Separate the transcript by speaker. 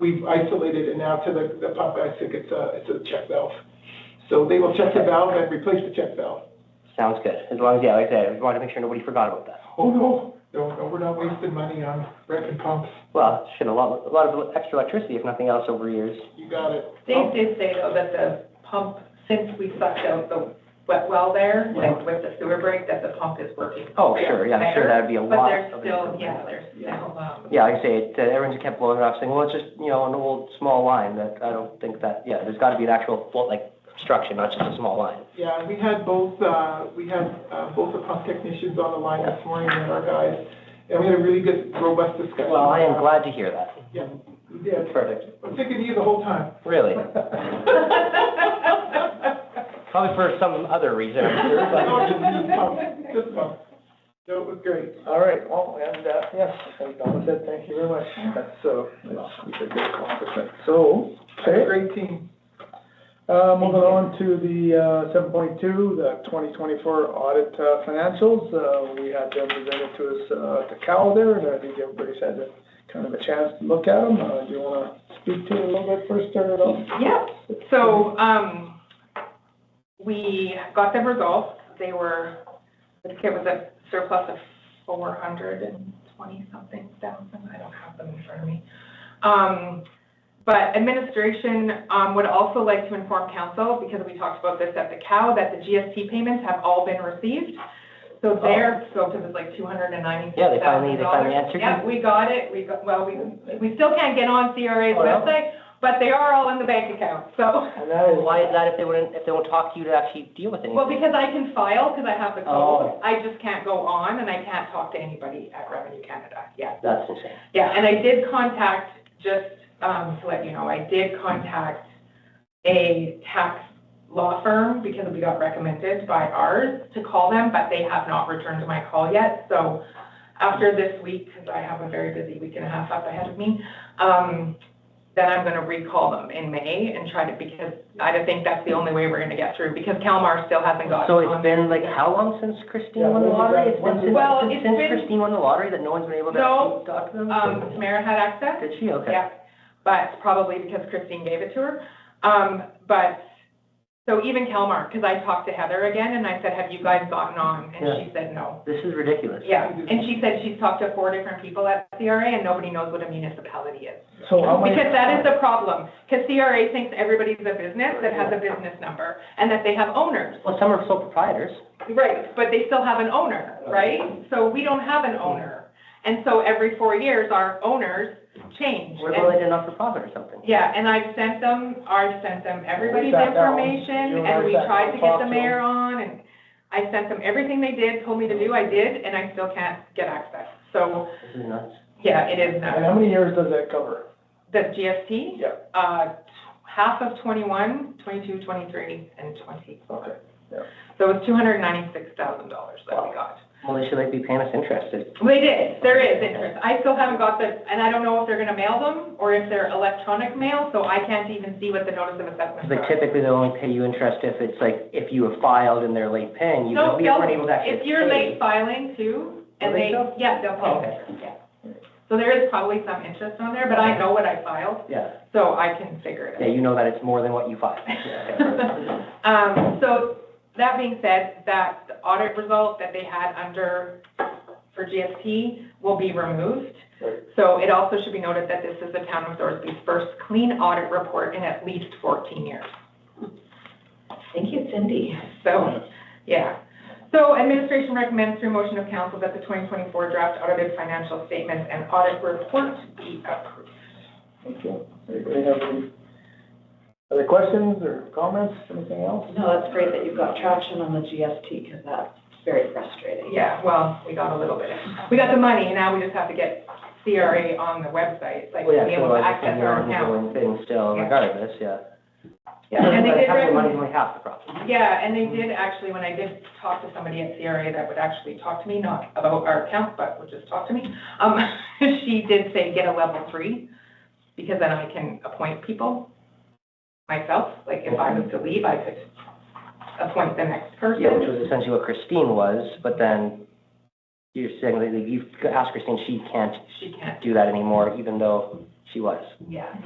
Speaker 1: we've isolated it now to the, the pump, I think it's a, it's a check valve. So they will check the valve and replace the check valve.
Speaker 2: Sounds good. As long as, yeah, like I said, I wanted to make sure nobody forgot about that.
Speaker 1: Oh, no, no, no, we're not wasting money on repping pumps,
Speaker 2: Well, shit, a lot, a lot of extra electricity, if nothing else, over years.
Speaker 1: you got it. Oh,
Speaker 3: They did say though that the pump, since we sucked out the wet well there, like with the sewer break, that the pump is working.
Speaker 2: Oh, sure, yeah, I'm sure
Speaker 3: better,
Speaker 2: that'd be a
Speaker 3: But
Speaker 2: lot.
Speaker 3: there's
Speaker 2: of
Speaker 3: still,
Speaker 2: improvement.
Speaker 3: yeah, there's still, um,
Speaker 2: Yeah, like I say, it, uh, everyone's kept blowing it off, saying, well, it's just, you know, an old, small line, that, I don't think that, yeah, there's gotta be an actual, fault, like, obstruction, not just a small line.
Speaker 1: Yeah, we had both, uh, we had, uh, both the pump technicians on the line this morning and our guys, and we had a really good, robust discussion.
Speaker 2: Well, I
Speaker 3: uh,
Speaker 2: am glad to hear that.
Speaker 1: Yeah, we did.
Speaker 2: Perfect,
Speaker 1: I'm thinking of you the whole time.
Speaker 2: really. Probably for some other reason, I'm sure, but.
Speaker 1: No, just- just pump, just pump. No, it was great.
Speaker 4: All right, well, and, uh, yes, and Donna said, thank you very much. That's, uh, that's a good accomplishment. So, okay,
Speaker 1: Great team.
Speaker 4: uh, moving on to the, uh, seven point two, the twenty twenty-four audit, uh, financials. Uh, we had them presented to us, uh, at the Cal there, and I think everybody's had a kind of a chance to look at them. Uh, do you wanna speak to it a little bit first, start it off?
Speaker 3: Yeah, so, um, we got them results, they were, the kit was a surplus of four hundred and twenty something thousand, I don't have them in front of me. Um, but administration, um, would also like to inform council, because we talked about this at the COW, that the GST payments have all been received. So their scope is like two hundred and ninety-six
Speaker 2: Oh. Yeah,
Speaker 3: thousand dollars.
Speaker 2: they finally- they finally answered you.
Speaker 3: Yeah, we got it, we got, well, we, we still can't get on CRA's
Speaker 4: Oh, yeah?
Speaker 3: website, but they are all in the bank account, so.
Speaker 4: And that is,
Speaker 2: Why is that if they wouldn't, if they won't talk to you to actually deal with anything?
Speaker 3: Well, because I can file, because I have the
Speaker 2: Oh.
Speaker 3: code, I just can't go on and I can't talk to anybody at Revenue Canada, yeah.
Speaker 2: That's insane.
Speaker 3: Yeah, and I did contact, just um, to let you know, I did contact a tax law firm because we got recommended by ours to call them, but they have not returned my call yet. So after this week, because I have a very busy week and a half up ahead of me, um, then I'm going to recall them in May and try to, because I think that's the only way we're going to get through, because Calmar still hasn't gotten
Speaker 2: So
Speaker 3: on.
Speaker 2: it's been like, how long since Christine
Speaker 4: Yeah,
Speaker 2: won the
Speaker 4: when did
Speaker 2: lottery?
Speaker 4: that-
Speaker 2: It's been
Speaker 4: when did
Speaker 2: since, since-
Speaker 3: that- Well,
Speaker 2: since
Speaker 3: it's been-
Speaker 2: Christine won the lottery that no one's been able to
Speaker 3: No,
Speaker 2: actually talk to them?
Speaker 3: Um, Tamara had access.
Speaker 2: Did she? Okay.
Speaker 3: Yeah, but probably because Christine gave it to her. Um, but, so even Kelmar, because I talked to Heather again and I said, have you guys gotten on? And she said, no.
Speaker 2: This is ridiculous.
Speaker 3: Yeah, and she said she's talked to four different people at CRA and nobody knows what a municipality is.
Speaker 4: so how many?
Speaker 3: Because that is the problem, because CRA thinks everybody's a business that has a business number and that they have owners.
Speaker 2: Well, some are sole proprietors.
Speaker 3: Right, but they still have an owner, right? So we don't have an owner. And so every four years, our owners change.
Speaker 2: What
Speaker 3: And
Speaker 2: about like a not-for-profit or something?
Speaker 3: Yeah, and I've sent them, I've sent them everybody's
Speaker 4: sat down, you
Speaker 3: information,
Speaker 4: and
Speaker 3: and
Speaker 4: I
Speaker 3: we
Speaker 4: sat
Speaker 3: tried
Speaker 4: down,
Speaker 3: to get
Speaker 4: talked
Speaker 3: the
Speaker 4: to
Speaker 3: mayor on, and I sent them everything they did, told me to do, I did, and I still can't get access. So,
Speaker 2: This is nuts.
Speaker 3: yeah, it is
Speaker 4: And
Speaker 3: nuts.
Speaker 4: how many years does that cover?
Speaker 3: The GST?
Speaker 4: Yeah.
Speaker 3: Uh, half of twenty-one, twenty-two, twenty-three, and twenty.
Speaker 4: Okay, yeah.
Speaker 3: So it was two hundred and ninety-six thousand dollars that we got.
Speaker 2: Well, they should like be paying us interest. It's-
Speaker 3: They did, there is interest. I still haven't got the, and I don't know if they're gonna mail them, or if they're electronic mail, so I can't even see what the notice of assessment
Speaker 2: Like
Speaker 3: is.
Speaker 2: typically they only pay you interest if it's like, if you have filed and they're late paying, you
Speaker 3: No,
Speaker 2: we weren't able
Speaker 3: they'll,
Speaker 2: to actually
Speaker 3: if you're
Speaker 2: pay.
Speaker 3: late filing too,
Speaker 2: Will
Speaker 3: and
Speaker 2: they
Speaker 3: they,
Speaker 2: still?
Speaker 3: yeah, they'll
Speaker 2: Oh,
Speaker 3: pay, interest, yeah. So there is probably some interest on there, but I know what I filed,
Speaker 2: Yeah,
Speaker 3: so I can figure it out.
Speaker 2: yeah, you know that it's more than what you filed. Yeah.
Speaker 3: Um, so, that being said, that the audit result that they had under, for GST will be removed.
Speaker 4: Right.
Speaker 3: So it also should be noted that this is the town of Thorsby's first clean audit report in at least fourteen years.
Speaker 5: Thank you, Cindy.
Speaker 3: So, yeah. So administration recommends through motion of council that the twenty twenty-four draft audited financial statements and audit report be approved.
Speaker 4: Okay, anybody have any other questions or comments, anything else?
Speaker 5: No, that's great that you've got traction on the GST, because that's very frustrating.
Speaker 3: Yeah, well, we got a little bit. We got the money, and now we just have to get CRA on the website, like
Speaker 2: Well, yeah,
Speaker 3: be
Speaker 2: so
Speaker 3: able to
Speaker 2: like,
Speaker 3: access
Speaker 2: you're
Speaker 3: our
Speaker 2: on your
Speaker 3: account.
Speaker 2: own thing still
Speaker 3: Yeah.
Speaker 2: regardless, yeah.
Speaker 3: Yeah, and they
Speaker 2: But
Speaker 3: did
Speaker 2: half the
Speaker 3: recommend-
Speaker 2: money's only half the problem.
Speaker 3: Yeah, and they did actually, when I did talk to somebody at CRA that would actually talk to me, not about our account, but would just talk to me, um, she did say get a level three, because then I can appoint people myself, like if I was to leave, I could appoint the next
Speaker 2: Yeah, which
Speaker 3: person.
Speaker 2: was essentially what Christine was, but then you're saying that you asked Christine, she can't
Speaker 3: She can't,
Speaker 2: do that anymore, even though she was.
Speaker 3: yeah.